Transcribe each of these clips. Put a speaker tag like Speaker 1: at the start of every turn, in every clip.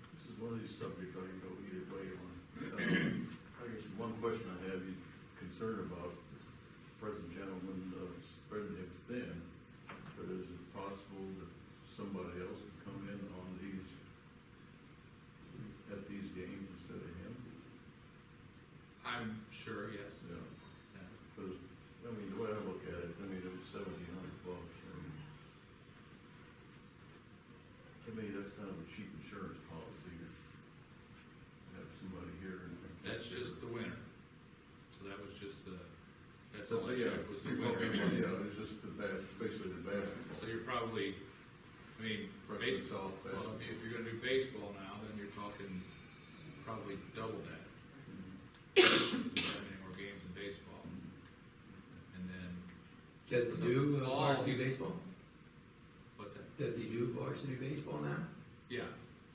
Speaker 1: facility subject, I can go either way on. Um, I guess one question I have, you concerned about, present gentleman, uh, spreading him thin, but is it possible that somebody else could come in on these, at these games instead of him?
Speaker 2: I'm sure, yes.
Speaker 1: Yeah.
Speaker 2: Yeah.
Speaker 1: Because, I mean, the way I look at it, I mean, it was seventeen hundred bucks, and to me, that's kind of a cheap insurance policy, to have somebody here and.
Speaker 2: That's just the winner. So that was just the, that's
Speaker 1: So,
Speaker 2: all I
Speaker 1: yeah,
Speaker 2: checked was the
Speaker 1: you're talking about,
Speaker 2: winner.
Speaker 1: Yeah, it's just the bas, basically the
Speaker 2: So
Speaker 1: basketball.
Speaker 2: you're probably, I mean,
Speaker 1: Freshman
Speaker 2: baseball,
Speaker 1: softball.
Speaker 2: if you're gonna do baseball now, then you're talking probably double that. Many more games in baseball. And then,
Speaker 3: Does he do uh, varsity baseball?
Speaker 2: what's that?
Speaker 3: Does he do varsity baseball now?
Speaker 2: Yeah.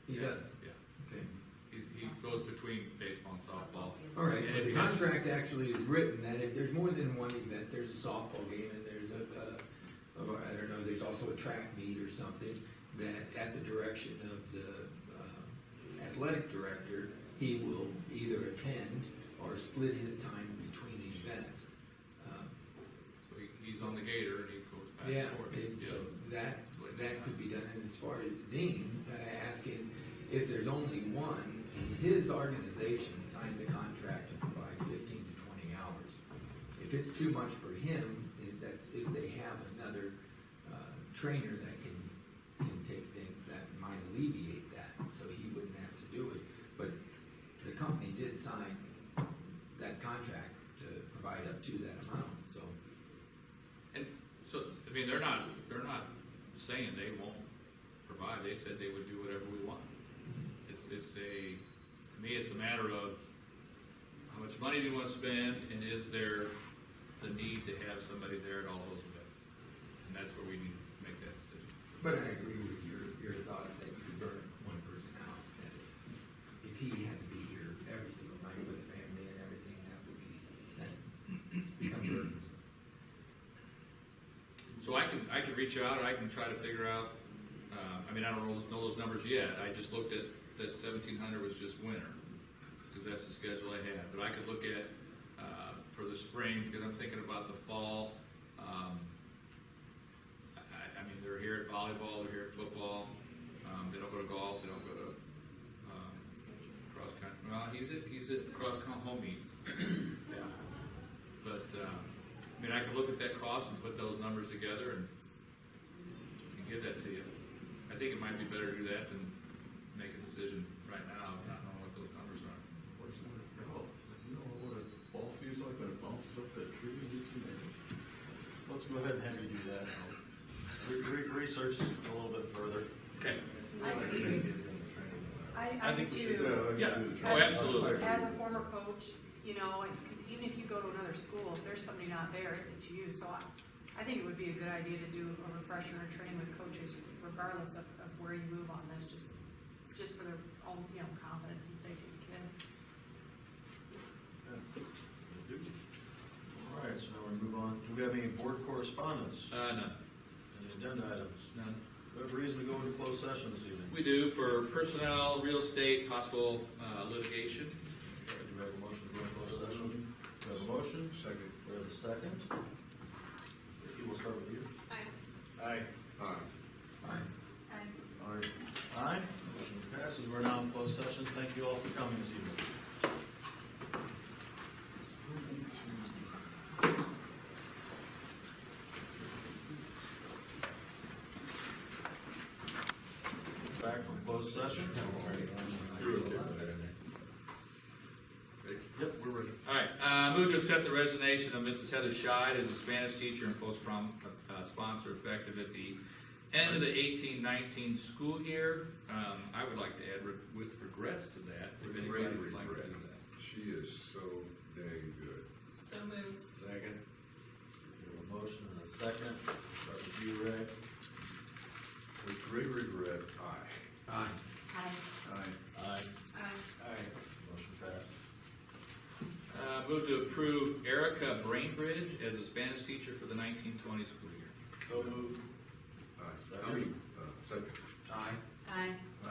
Speaker 3: He
Speaker 2: yeah,
Speaker 3: does,
Speaker 2: Yeah.
Speaker 3: okay.
Speaker 2: He, he goes between baseball and softball.
Speaker 3: All right,
Speaker 2: And
Speaker 3: but the
Speaker 2: it has-
Speaker 3: contract actually is written that if there's more than one event, there's a softball game and there's a, a, a I don't know, there's also a track meet or something, that at the direction of the uh, athletic director, he will either attend or split his time between the events. Um,
Speaker 2: So he, he's on the gator and he goes back
Speaker 3: Yeah,
Speaker 2: and forth.
Speaker 3: and so that, that could be done, and as far as Dean, uh, asking if there's only one, his organization signed the contract to provide fifteen to twenty hours. If it's too much for him, if that's, if they have another, uh, trainer that can, can take things, that might alleviate that, so he wouldn't have to do it. But the company did sign that contract to provide up to that amount, so,
Speaker 2: And so, I mean, they're not, they're not saying they won't provide, they said they would do whatever we want. It's, it's a, to me, it's a matter of how much money do you want to spend and is there the need to have somebody there at all those events? And that's where we need to make that decision.
Speaker 3: But I agree with your, your thoughts that you could burn one person out, that if he had to be here every single night with the family and everything, that would be, that becomes burdensome.
Speaker 2: So I can, I can reach out, I can try to figure out, uh, I mean, I don't know, know those numbers yet, I just looked at, that seventeen hundred was just winter, because that's the schedule I have, but I could look at, uh, for the spring, because I'm thinking about the fall, um, I, I- I mean, they're here at volleyball, they're here at football, um, they don't go to golf, they don't go to, um, cross country, well, he's at, he's at cross country home meets. Yeah. But, um, I mean, I can look at that cost and put those numbers together and, and give that to you. I think it might be better to do that than make a decision right now, not knowing what those numbers are.
Speaker 1: What's that about? You know what a ball feels like when it bounces up that tree and hits you in the head?
Speaker 4: Let's go ahead and have you do that. Re- re- Research a little bit further.
Speaker 2: Okay.
Speaker 5: I think, I, I
Speaker 2: think
Speaker 5: think
Speaker 2: we
Speaker 5: too,
Speaker 1: I
Speaker 2: Yeah.
Speaker 1: can do the
Speaker 2: Oh,
Speaker 1: training.
Speaker 2: absolutely.
Speaker 5: as a former coach, you know, because even if you go to another school, if there's somebody not there, it's- it's you, so I, I think it would be a good idea to do a refresher and train with coaches regardless of, of where you move on this, just, just for their own, you know, confidence and safety of the kids.
Speaker 4: All right, so now we move on. Do we have any board correspondence?
Speaker 2: Uh, no,
Speaker 4: Any agenda items?
Speaker 2: no.
Speaker 4: What reason to go into closed session this evening?
Speaker 2: We do for personnel, real estate, possible uh, litigation.
Speaker 4: Do we have a motion to go into closed session? We have a motion? Second. We have a second. Vicky, we'll start with you. Aye. Aye.
Speaker 3: Fine.
Speaker 4: Aye. Aye. Motion passes. We're now in closed session. Thank you all for coming this evening. Back from closed session.
Speaker 2: Ready?
Speaker 4: Yep, we're ready.
Speaker 2: All right, uh, move to accept the resignation of Mrs. Heather Scheid as a Spanish teacher and post-prom, uh, sponsor effective at the end of the eighteen nineteen school year. Um, I would like to add re- with regrets to that, if
Speaker 6: With
Speaker 2: anybody
Speaker 6: great
Speaker 2: would like to do
Speaker 6: regret.
Speaker 2: that.
Speaker 6: She is so dang good.
Speaker 5: So moved.
Speaker 4: Second. We have a motion and a second. Start with you, Rick.
Speaker 6: With great regret, I.
Speaker 3: Aye.
Speaker 5: Aye.
Speaker 4: Aye.
Speaker 5: Aye.
Speaker 4: Aye. Motion passes.
Speaker 2: Uh, move to approve Erica Brainbridge as a Spanish teacher for the nineteen twenty school year.
Speaker 4: So moved.
Speaker 6: I
Speaker 4: Second.
Speaker 6: I mean, uh, second.